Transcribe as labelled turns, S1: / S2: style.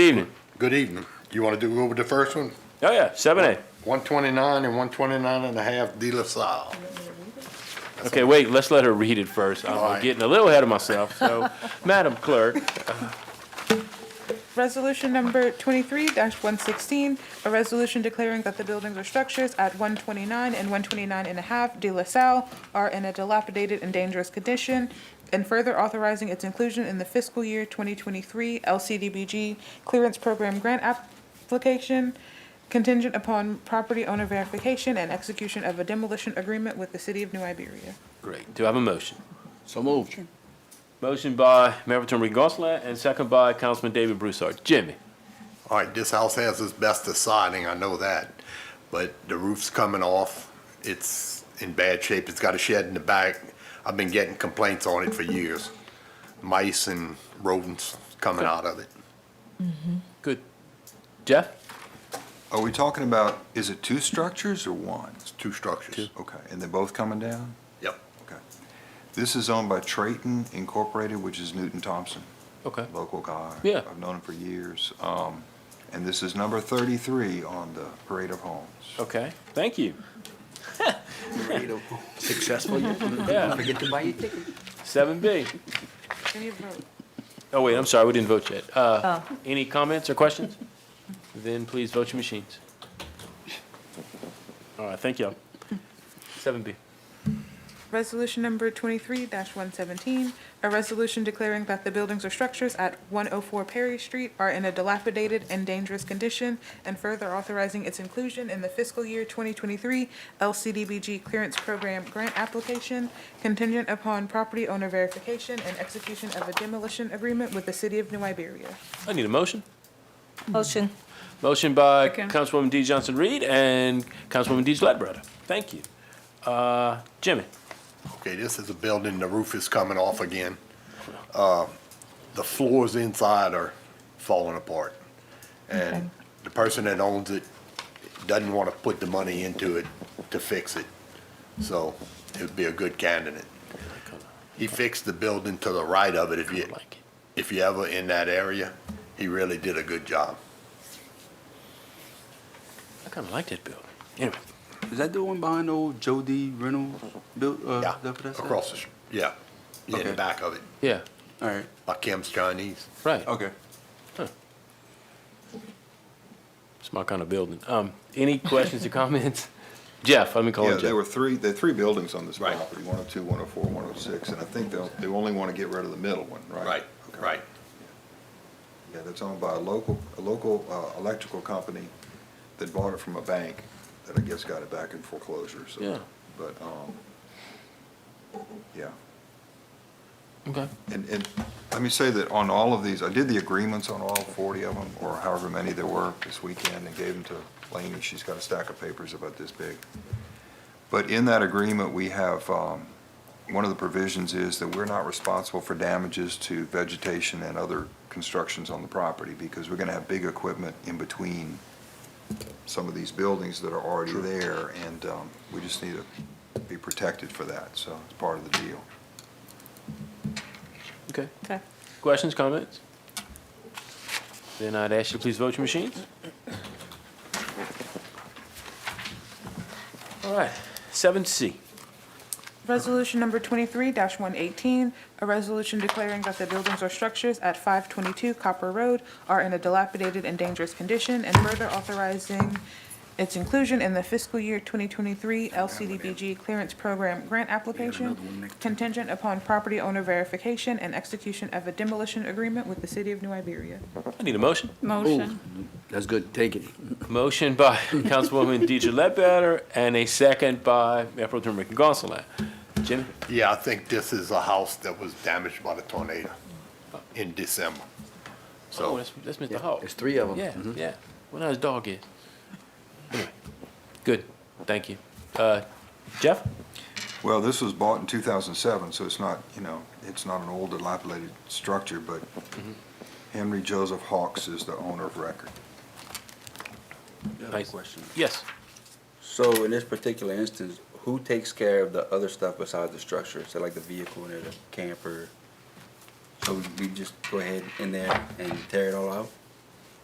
S1: Evening.
S2: Good evening. You want to do over the first one?
S1: Oh, yeah, seven A.
S2: 129 and 129 and a half De La Salle.
S1: Okay, wait, let's let her read it first. I'm
S2: Alright.
S1: getting a little ahead of myself, so, Madam Clerk,
S3: Resolution number twenty-three one sixteen, a resolution declaring that the buildings or structures at one twenty-nine and one twenty-nine and a half De La Salle are in a dilapidated and dangerous condition, and further authorizing its inclusion in the fiscal year twenty twenty-three LCDBG Clearance Program Grant Application contingent upon property owner verification and execution of a demolition agreement with the city of New Iberia.
S1: great, do I have a motion?
S4: So moved.
S1: Motion by Mayor Proton Ricky Gonsalas and second by Councilman David Broussard. Jimmy,
S2: All right, this house has its best of siding, I know that. But the roof's coming off. It's in bad shape. It's got a shed in the back. I've been getting complaints on it for years. Mice and rodents coming out of it.
S1: good. Jeff?
S5: Are we talking about, is it two structures or one?
S2: It's two structures.
S5: Okay, and they're both coming down?
S2: Yep.
S5: Okay. This is owned by Trayton Incorporated, which is Newton Thompson,
S1: Okay.
S5: local guy.
S1: Yeah.
S5: I've known him for years. Um, And this is number 33 on the Parade of Homes.
S1: Okay, thank you.
S4: Successful,
S1: Yeah,
S4: forget to buy your ticket.
S1: seven B.
S3: Can you vote?
S1: Oh, wait, I'm sorry, we didn't vote yet. Uh, any comments or questions? Then please vote your machines. All right, thank y'all. Seven B.
S3: Resolution number twenty-three one seventeen, a resolution declaring that the buildings or structures at one oh four Perry Street are in a dilapidated and dangerous condition, and further authorizing its inclusion in the fiscal year twenty twenty-three LCDBG Clearance Program Grant Application contingent upon property owner verification and execution of a demolition agreement with the city of New Iberia.
S1: I need a motion.
S6: Motion.
S1: Motion by
S3: Second.
S1: Councilwoman Dee Johnson Reed and Councilwoman Dee Ledbetter. Thank you. Uh, Jimmy,
S2: Okay, this is a building, the roof is coming off again. Uh, The floors inside are falling apart. And the person that owns it doesn't want to put the money into it to fix it. So it would be a good candidate. He fixed the building to the right of it. If you,
S1: like it.
S2: if you ever in that area, he really did a good job.
S1: I kind of like that building. Anyway,
S4: Is that the one behind old Jody Reynolds built, uh,
S2: Yeah,
S4: that what that's at?
S2: across the, str- yeah, yeah, in the
S4: Okay.
S2: back of it,
S1: yeah,
S4: All right,
S2: by Kim's Chinese.
S1: right.
S4: okay.
S1: It's my kind of building. Um, any questions or comments? Jeff, let me call
S5: Yeah,
S1: him
S5: there were
S1: Jeff.
S5: three, there are three buildings on this
S2: Oh, Right.
S5: property, 102, 104, 106, and I think they'll, they only want to get rid of the middle one, right?
S2: Right,
S5: Okay.
S2: right.
S5: Yeah, that's owned by a local, a local uh, electrical company that bought it from a bank that I guess got it back in foreclosure, so.
S1: Yeah.
S5: But, um, yeah.
S1: Okay,
S5: And, and let me say that on all of these, I did the agreements on all 40 of them, or however many there were this weekend, and gave them to Laney. She's got a stack of papers about this big. But in that agreement, we have, um, one of the provisions is that we're not responsible for damages to vegetation and other constructions on the property, because we're gonna have big equipment in between some of these buildings that are already there, and um, we just need to be protected for that, so it's part of the deal.
S1: okay.
S3: Okay.
S1: Questions, comments? Then I'd ask you to please vote your machines. All right, seven C.
S3: Resolution number twenty-three one eighteen, a resolution declaring that the buildings or structures at five twenty-two Copper Road are in a dilapidated and dangerous condition, and further authorizing its inclusion in the fiscal year twenty twenty-three LCDBG Clearance Program Grant Application, contingent upon property owner verification and execution of a demolition agreement with the city of New Iberia.
S1: I need a motion.
S4: Motion. That's good, take it.
S1: Motion by Councilwoman Deidre Ledbetter and a second by Mayor Pro Tem Ricky Gonsalas. Jimmy?
S2: Yeah, I think this is a house that was damaged by the tornado in December.
S1: Oh,
S2: So,
S1: that's, that's Mr. Hawk.
S4: There's three of Mm-hmm. them.
S1: Yeah, yeah. Well, now his dog is. Anyway, Good, thank you. Uh, Jeff?
S5: Well, this was bought in 2007, so it's not, you know, it's not an old dilapidated structure, but Henry Joseph Hawks is the owner of record.
S1: Nice.
S4: Question.
S1: Yes.
S7: So in this particular instance, who takes care of the other stuff besides the structure? So like the vehicle and the camper? So we just go ahead in there and tear it all out?